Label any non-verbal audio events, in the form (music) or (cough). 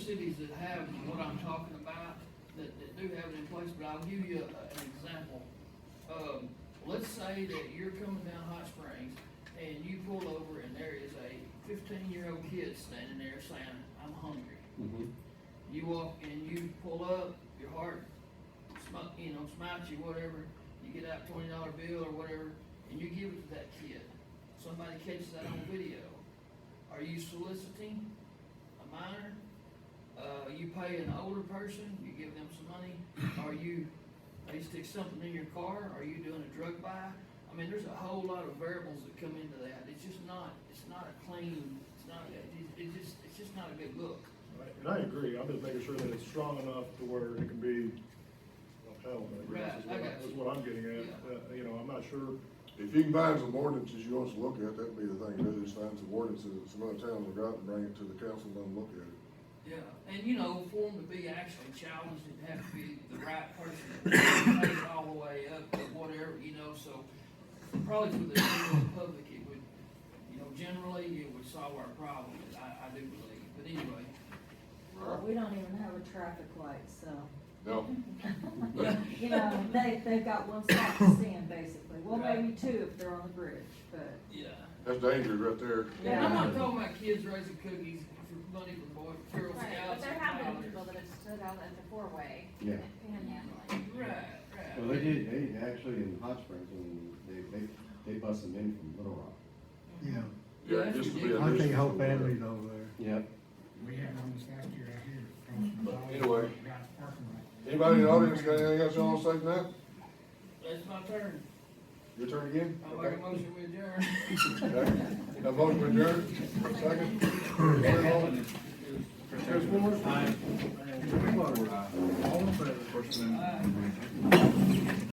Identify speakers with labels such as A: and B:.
A: cities that have what I'm talking about, that, that do have it in place, but I'll give you a- an example. Um, let's say that you're coming down Hot Springs and you pull over and there is a fifteen-year-old kid standing there saying, I'm hungry.
B: Mm-hmm.
C: Mhm.
A: You walk and you pull up, your heart, smi- you know, smites you, whatever, you get out twenty dollar bill or whatever, and you give it to that kid. Somebody catches that on video. Are you soliciting a minor? Uh, you pay an older person, you give them some money, are you, they stick something in your car, are you doing a drug buy? I mean, there's a whole lot of variables that come into that, it's just not, it's not a clean, it's not, it- it just, it's just not a good look.
D: Right, And I agree, I'm just making sure that it's strong enough to where it can be upheld, I guess, is
A: Right, I
D: what, I-
A: got you.
D: is what I'm getting at.
A: Yeah.
D: Uh, you know, I'm not sure,
B: If you can find some ordinances you want us to look at, that'd be the thing, to do, is find some ordinances that some other towns have got and bring it to the council and let them look at it.
A: Yeah, and you know, for them to be actually challenged, it'd have to be the right person, take it all the way up, or whatever, you know, so probably for the general public, it would, you know, generally, it would solve our problem, I, I do believe, but anyway.
E: Well, we don't even have a traffic light, so,
A: (laughs)
B: No,
E: you know, they, they've got one stop to stand basically, well,
A: Right.
E: maybe two if they're on the bridge, but.
A: Yeah.
B: that's dangerous right there.
A: And I'm not
E: Yeah.
A: talking about kids raising cookies for money for boy, Girl Scouts.
F: Right, but there
A: and
F: have been
A: Cowboys.
F: people that have stood out at the four-way.
C: Yeah.
F: Panhandling.
A: Right, right.
C: Well, they did, they actually in Hot Springs, I mean, they, they, they bust them in from Little Rock.
G: Yeah,
B: Yeah,
A: that's
B: just to be
G: I
A: ridiculous.
B: a
G: think
B: nuisance
G: whole
B: over there.
G: family's over there.
C: Yep.
H: We had one this last year out here. across from
B: But
H: Dolly,
B: anyway.
H: Got parking lot.
B: Anybody in the audience got anything else you want to say tonight?
A: That's my turn,
B: Your turn again?
A: I make a motion with adjourn.
B: Okay. Now, motion adjourned, second. Chris Moore?
A: Uh, Aye.